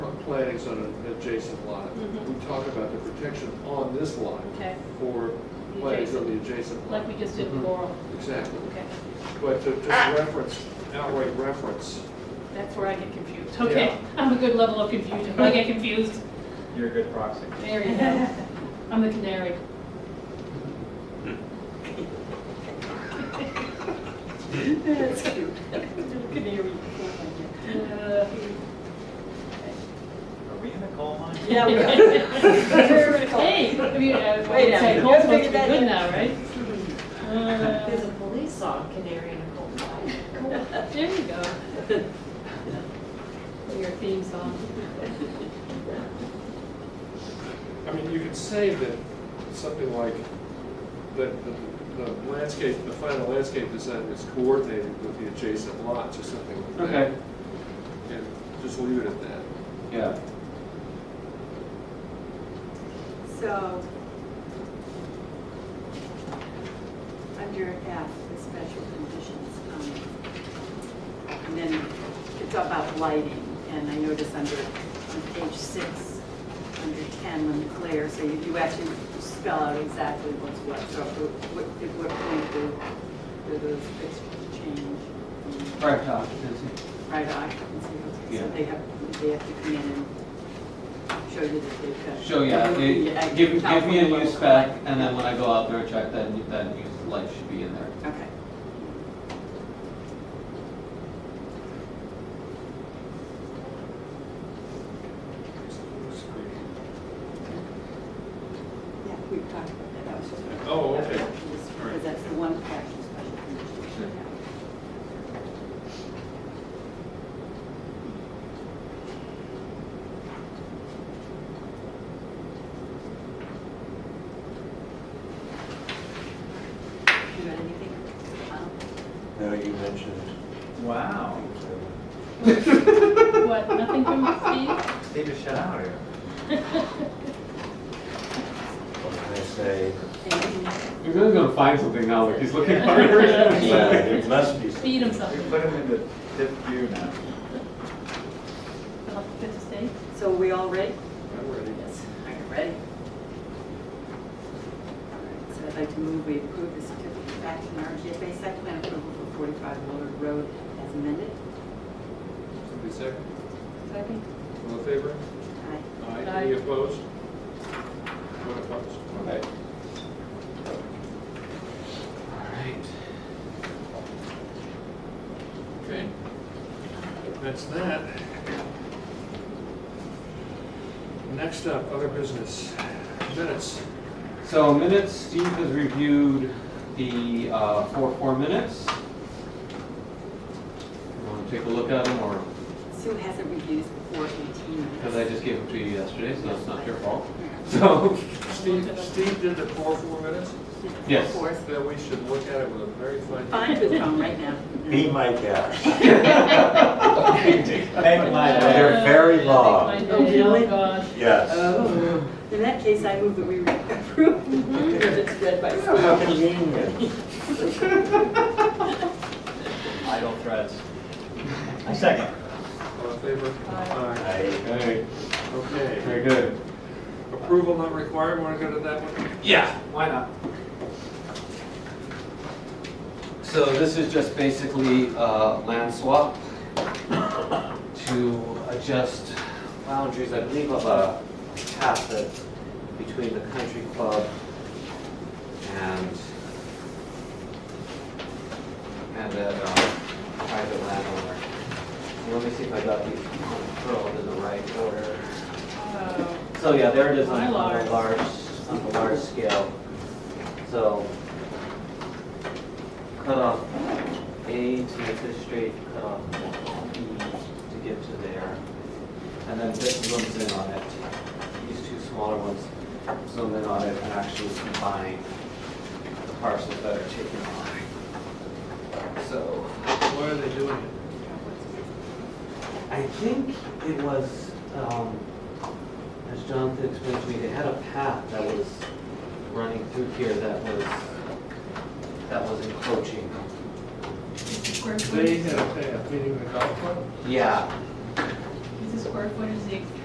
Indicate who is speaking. Speaker 1: plantings on an adjacent lot.
Speaker 2: Mhm.
Speaker 1: We talk about the protection on this lot
Speaker 2: Okay.
Speaker 1: for
Speaker 2: The
Speaker 1: plantings on the
Speaker 2: adjacent.
Speaker 1: adjacent lot.
Speaker 2: like we just Ah! did with Laurel.
Speaker 1: Exactly.
Speaker 2: Okay,
Speaker 1: But to, to reference, outright reference,
Speaker 2: that's where I get confused. Okay,
Speaker 1: Yeah.
Speaker 2: I'm a good level of confusion. I get confused.
Speaker 3: You're a good proxy.
Speaker 2: There you go. I'm the canary. That's cute. Canary. Uh,
Speaker 3: Are we in a coal mine?
Speaker 4: Yeah. we are.
Speaker 2: Hey, I mean, uh, well,
Speaker 4: Wait a
Speaker 2: it's like
Speaker 4: minute.
Speaker 2: Cole's supposed to
Speaker 4: Figure
Speaker 2: be
Speaker 4: that
Speaker 2: good
Speaker 4: in.
Speaker 2: now, right?
Speaker 4: There's a
Speaker 2: Uh,
Speaker 4: police song, Canary in a Coal Mine.
Speaker 2: There you go. Your theme song.
Speaker 1: I mean, you could say that something like, that the- the landscape, the final landscape design is coordinated with the adjacent lots or something like that.
Speaker 5: Okay,
Speaker 1: And just leave it at that.
Speaker 5: yeah.
Speaker 6: So, under F, the special conditions, um, and then it's about lighting, and I notice under, on page six, under 10, when the glare, so you do actually spell out exactly what's what, so what- at what point do, do those fixtures change? um,
Speaker 5: Right, occupancy.
Speaker 6: Right occupancy, okay,
Speaker 5: Yeah.
Speaker 6: so they have, they have to come in and show you that they've got.
Speaker 5: So, yeah, they-
Speaker 6: Um, Yeah, I-
Speaker 5: give, give me a
Speaker 6: California
Speaker 5: new
Speaker 6: level.
Speaker 5: spec, and then when I go out there, check that, new- that new light should be in there.
Speaker 6: Okay. Yeah, we've talked about that, I was just.
Speaker 1: Oh, okay. All right.
Speaker 6: Because that's the one practice special condition. You got anything? Um,
Speaker 7: No, you mentioned.
Speaker 3: Wow.
Speaker 2: What, nothing from Steve?
Speaker 3: They just shut out here.
Speaker 7: What can I say?
Speaker 6: anything?
Speaker 5: You're really gonna find something now, like he's looking for
Speaker 7: Yeah, It must be. something.
Speaker 2: Feed him
Speaker 3: We
Speaker 2: something.
Speaker 3: put them in the fifth gear now.
Speaker 2: I'll have to stay.
Speaker 6: So are we all ready?
Speaker 1: I'm ready.
Speaker 2: Yes.
Speaker 6: Are you ready? All right, So I'd like to move we approve the certificate of action, RGFA site plan approval for 45 Willard Road as amended.
Speaker 1: Somebody second?
Speaker 6: Second.
Speaker 1: All in favor?
Speaker 6: Aye.
Speaker 1: Aye.
Speaker 2: Aye.
Speaker 1: Any opposed? One opposed.
Speaker 5: Okay.
Speaker 1: Okay. That's that. Next up, other business. Minutes.
Speaker 5: So minutes, Steve has reviewed the uh, four, four minutes. You Wanna take a look at them, or,
Speaker 6: Sue hasn't reviewed this before 18 minutes.
Speaker 5: because I just gave them to you yesterday, so it's not your fault. So,
Speaker 1: Steve, Steve did the four, four minutes?
Speaker 5: Yes.
Speaker 6: Four.
Speaker 1: Then we should look at it with a very fine.
Speaker 6: Fine with Tom right now.
Speaker 7: Be my guest.
Speaker 3: Make my
Speaker 7: They're very
Speaker 2: Uh,
Speaker 7: long.
Speaker 2: like my
Speaker 6: Oh,
Speaker 2: day,
Speaker 6: really?
Speaker 2: Oh, God.
Speaker 7: Yes.
Speaker 6: Oh, in that case, I move that we approve. It's read by Sue.
Speaker 7: How convenient.
Speaker 3: idle threats. Second.
Speaker 1: All in favor? Aye.
Speaker 7: I-
Speaker 5: okay,
Speaker 1: Okay.
Speaker 5: very good.
Speaker 1: Approval not required. Want to go to that one?
Speaker 5: Yeah,
Speaker 3: Why not?
Speaker 5: So this is just basically a land swap to adjust boundaries, I believe, of a path that between the country club and and that uh, private landowner. Let me see if I got these controlled in the right order.
Speaker 2: Uh,
Speaker 5: So yeah, they're designed on
Speaker 2: Mylars.
Speaker 5: a large, on a large scale. So cut off A to get this straight, cut off B to get to there. And then this zooms in on it. These two smaller ones zoom in on it and actually combine the parcels that are taken off. So
Speaker 1: Why are they doing it?
Speaker 5: I think it was, um, as Jonathan explained to me, they had a path that was running through here that was, that was encroaching.
Speaker 2: Is the square
Speaker 1: They
Speaker 2: footage,
Speaker 1: had a path, meaning the golf club?
Speaker 5: Yeah,
Speaker 2: is the square footage the